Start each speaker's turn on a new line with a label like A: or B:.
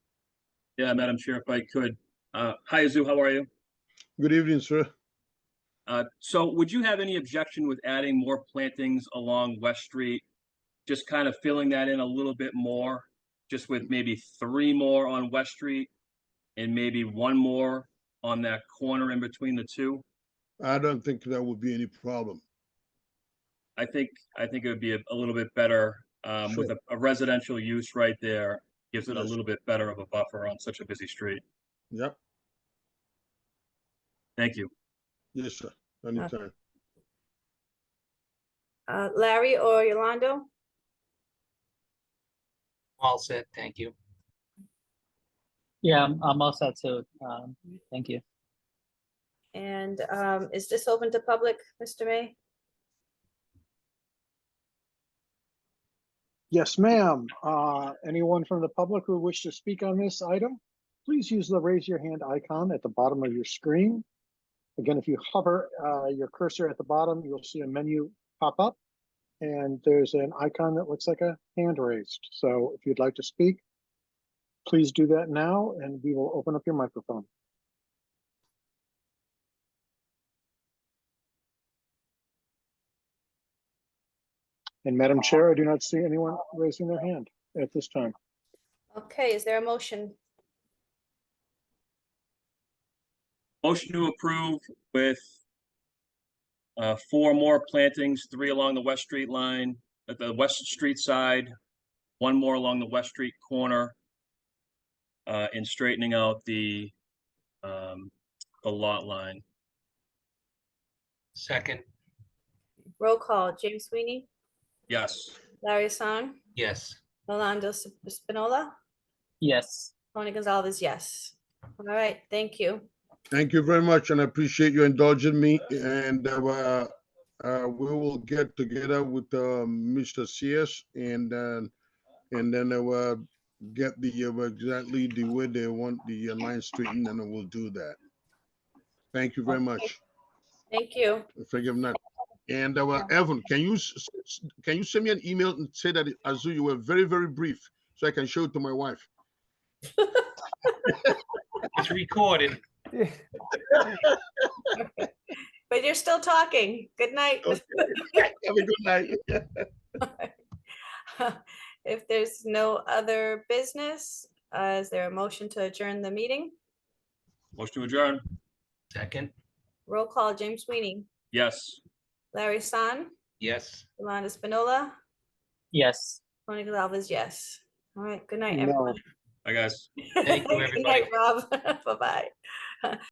A: Yeah, Madam Chair, if I could. Uh, Hi, Azu, how are you?
B: Good evening, sir.
A: Uh, So would you have any objection with adding more plantings along West Street? Just kind of filling that in a little bit more, just with maybe three more on West Street and maybe one more on that corner in between the two?
B: I don't think that would be any problem.
A: I think, I think it would be a a little bit better um, with a a residential use right there. Gives it a
B: Yes.
A: little bit better of a buffer on such a busy street.
B: Yep,
A: Thank you.
B: yes, sir, anytime.
C: Uh, Larry or Yolando?
D: All set, thank you.
E: Yeah, I'm, I'm all set too. Um, thank you.
C: And um, is this open to public, Mr. May?
F: Yes, ma'am. Uh, Anyone from the public who wish to speak on this item, please use the raise your hand icon at the bottom of your screen. Again, if you hover uh, your cursor at the bottom, you'll see a menu pop up. And there's an icon that looks like a hand raised. So if you'd like to speak, please do that now and we will open up your microphone. And Madam Chair, I do not see anyone raising their hand at this time.
C: Okay, is there a motion?
A: Motion to approve with uh, four more plantings, three along the West Street line, at the West Street side, one more along the West Street corner, uh, and straightening out the, um, the lot line.
D: Second,
C: Roll call, James Sweeney,
A: Yes.
C: Larry Hassan,
D: yes.
C: Yolando Sp- Spinola,
E: Yes,
C: Tony Gonzalez, yes. All right, thank you.
B: Thank you very much, and I appreciate you indulging me, and uh, uh, we will get together with uh, Mr. CS and then, and then uh, get the, uh, exactly the way they want the uh, line straightened, and we'll do that. Thank you very much,
C: Thank you.
B: if I give not. And uh, Evan, can you, s- s- can you send me an email and say that, Azu, you were very, very brief, so I can show it to my wife?
D: It's recorded.
C: But you're still talking. Good night.
B: Okay. Have a good night.
C: If there's no other business, uh, is there a motion to adjourn the meeting?
A: Motion to adjourn.
D: Second,
C: Roll call, James Sweeney,
A: Yes.
C: Larry Hassan,
D: yes.
C: Yolando Spinola,
E: yes.
C: Tony Gonzalez, yes. All right, good night,
F: No.
C: everyone.
A: Hi, guys.
D: Thank you,
C: Good night, Rob. Bye-bye.